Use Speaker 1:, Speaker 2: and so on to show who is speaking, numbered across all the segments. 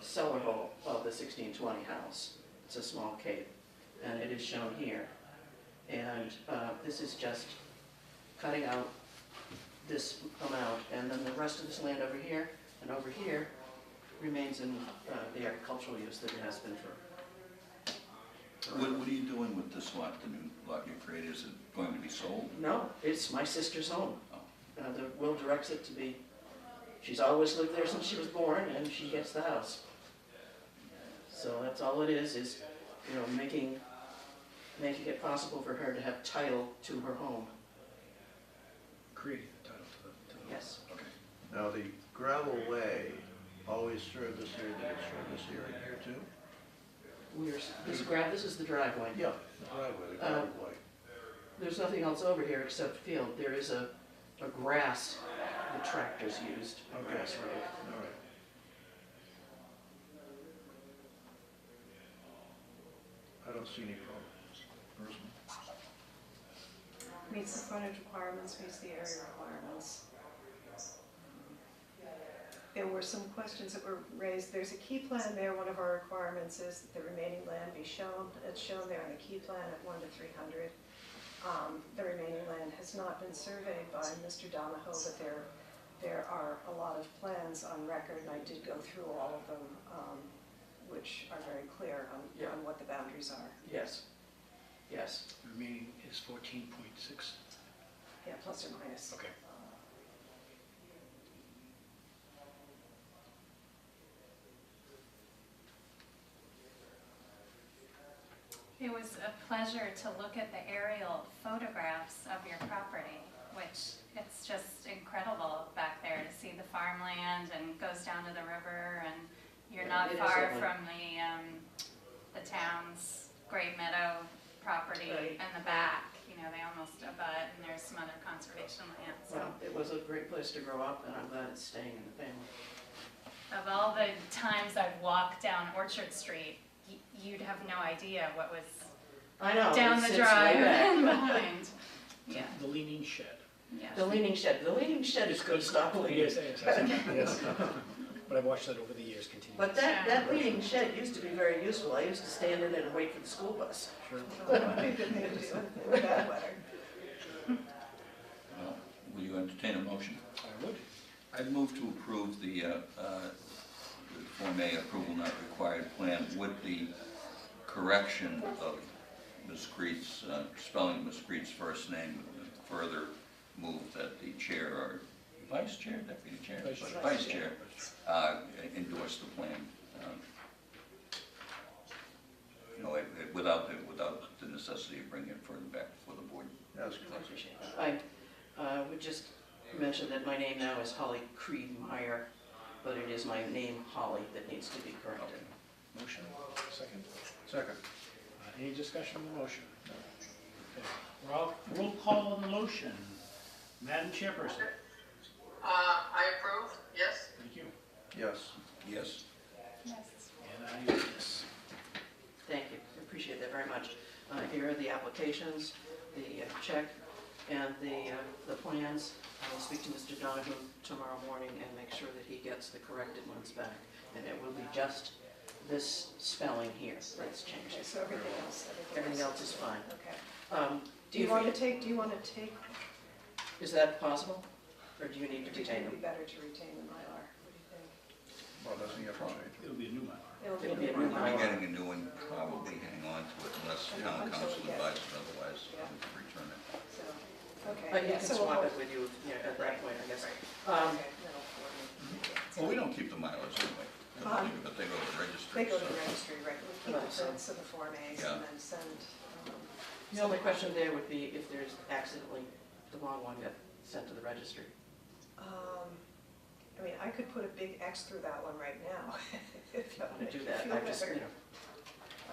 Speaker 1: cellar hole of the sixteen twenty house. It's a small cave, and it is shown here. And uh, this is just cutting out this amount, and then the rest of this land over here and over here remains in uh, the agricultural use that it has been for.
Speaker 2: What, what are you doing with this lot, the new lot you created, is it going to be sold?
Speaker 1: No, it's my sister's home.
Speaker 2: Oh.
Speaker 1: Uh, The will directs it to be, she's always lived there since she was born, and she gets the house. So that's all it is, is, you know, making, making it possible for her to have title to her home.
Speaker 3: creating the title to the, to the.
Speaker 1: Yes,
Speaker 2: Okay.
Speaker 4: Now, the gravel way always served this area, did it serve this area here too?
Speaker 1: we are, this grab, this is the driveway.
Speaker 4: Yeah, the driveway, the
Speaker 3: Uh,
Speaker 4: gravel way.
Speaker 1: There's nothing else over here except field. There is a, a grass, the tractors used, a
Speaker 4: Okay.
Speaker 1: grass road.
Speaker 4: All right. I don't see any problems. Personally.
Speaker 5: Meets the frontage requirements, meets the area requirements. There were some questions that were raised, there's a key plan there, one of our requirements is that the remaining land be shown, it's shown there on the key plan at one to three hundred. Um, the remaining land has not been surveyed by Mr. Donahoe, but there, there are a lot of plans on record, and I did go through all of them, um, which are very clear on,
Speaker 1: Yeah.
Speaker 5: on what the boundaries are.
Speaker 1: Yes, yes.
Speaker 3: The Remaining is fourteen point six.
Speaker 5: Yeah, plus or minus.
Speaker 3: Okay.
Speaker 6: It was a pleasure to look at the aerial photographs of your property, which it's just incredible back there to see the farmland and goes down to the river and you're
Speaker 1: Yeah,
Speaker 6: not
Speaker 1: it is
Speaker 6: far
Speaker 1: lovely.
Speaker 6: from the, um, the town's Great Meadow property
Speaker 1: Right.
Speaker 6: in the back. You know, they almost abut and there's some other conservation land, so.
Speaker 1: Well, it was a great place to grow up, and I'm glad it's staying in the family.
Speaker 6: Of all the times I've walked down Orchard Street, y- you'd have no idea what was
Speaker 1: I know.
Speaker 6: down
Speaker 1: it
Speaker 6: the
Speaker 1: sits way
Speaker 6: drive and
Speaker 1: back.
Speaker 6: behind. Yeah,
Speaker 3: The leaning shed.
Speaker 6: yeah.
Speaker 1: The leaning shed, the leaning shed is good, stop leaning.
Speaker 3: Yes, yes, yes, yes. But I've watched that over the years continue.
Speaker 1: But that, that leaning shed used to be very useful. I used to stand in it and wait for the school bus.
Speaker 3: Sure.
Speaker 5: That would be a good thing to do with bad weather.
Speaker 2: Well, will you entertain a motion?
Speaker 3: I would.
Speaker 2: I'd move to approve the, uh, uh, the Form A approval not required plan with the correction of Ms. Creed's, uh, spelling Ms. Creed's first name, and further move that the chair or vice chair, deputy chair,
Speaker 3: Vice
Speaker 2: but
Speaker 3: chair.
Speaker 2: vice chair, uh, endorse the plan. um, You know, it- it- without, the- without the necessity of bringing it further back before the board.
Speaker 4: That's
Speaker 1: I
Speaker 4: correct.
Speaker 1: appreciate that. I uh, would just mention that my name now is Holly Creed Meyer, but it is my name Holly that needs to be corrected.
Speaker 2: Okay. Motion?
Speaker 3: Second.
Speaker 4: Second.
Speaker 3: Uh, Any discussion on the motion? Okay. Roll, roll call on the motion. Madam Chairperson.
Speaker 7: Uh, I approve, yes.
Speaker 3: Thank you.
Speaker 4: Yes.
Speaker 2: Yes.
Speaker 6: Yes.
Speaker 3: And I vote yes.
Speaker 1: Thank you, I appreciate that very much. Uh, Here are the applications, the uh, check, and the, uh, the plans. I will speak to Mr. Donovan tomorrow morning and make sure that he gets the corrected ones back. And it will be just this spelling here that's
Speaker 5: Okay,
Speaker 1: changed.
Speaker 5: so everything else,
Speaker 1: Everything else is fine.
Speaker 5: Okay.
Speaker 1: Um,
Speaker 5: Do you want to take, do you want to take,
Speaker 1: Is that possible? Or do you need to
Speaker 5: do you
Speaker 1: retain
Speaker 5: think it'd be
Speaker 1: them?
Speaker 5: better to retain the Mylar? What do
Speaker 4: Well, doesn't he have to change?
Speaker 3: It'll be a new one.
Speaker 5: you think?
Speaker 1: It'll be a new
Speaker 2: We're
Speaker 1: Mylar.
Speaker 2: getting a new one, probably hang on to it unless town
Speaker 5: Until
Speaker 2: council
Speaker 5: we get it.
Speaker 2: advises otherwise, we
Speaker 5: Yeah.
Speaker 2: can return it.
Speaker 5: So,
Speaker 1: But
Speaker 5: okay,
Speaker 1: you
Speaker 5: Uh, yeah,
Speaker 1: can
Speaker 5: so we'll
Speaker 1: swap
Speaker 5: hold.
Speaker 1: it with you you know, at that point, I guess.
Speaker 5: Okay,
Speaker 1: Um,
Speaker 5: that'll coordinate.
Speaker 2: Well, we don't keep the mileage anyway,
Speaker 5: Um,
Speaker 2: but they go to the registry.
Speaker 5: They go to
Speaker 2: so-
Speaker 5: the registry, right, we keep
Speaker 1: Right, so-
Speaker 5: the prints of the Form As
Speaker 2: Yeah.
Speaker 5: and then send, um,
Speaker 1: The only question there would be if there's accidentally, the wrong one got sent to the registry.
Speaker 5: um, I mean, I could put a big X through that one right now. if that
Speaker 1: I'm
Speaker 5: would
Speaker 1: gonna do
Speaker 5: make you
Speaker 1: that,
Speaker 5: feel
Speaker 1: I just, you
Speaker 5: better.
Speaker 1: know,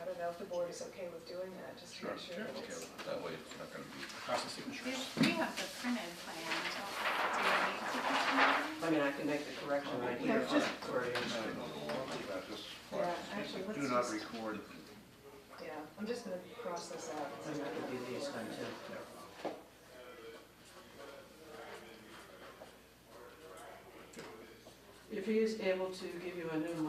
Speaker 5: I don't know if the board is okay with doing that, just to make sure that
Speaker 2: Okay,
Speaker 5: it's.
Speaker 2: That way it's not gonna be,
Speaker 3: Across the
Speaker 6: We
Speaker 3: signatures.
Speaker 6: we have the printed plan, don't we? Do we need to continue?
Speaker 1: I mean, I can make the correction right here
Speaker 5: Yeah, just-
Speaker 1: for you.
Speaker 4: No, no, no, I'll do that, just-
Speaker 5: Yeah, actually, let's
Speaker 4: Do not
Speaker 5: just-
Speaker 4: record.
Speaker 5: Yeah, I'm just gonna cross this out.
Speaker 1: I'm gonna do these then too. If he is able to give you a new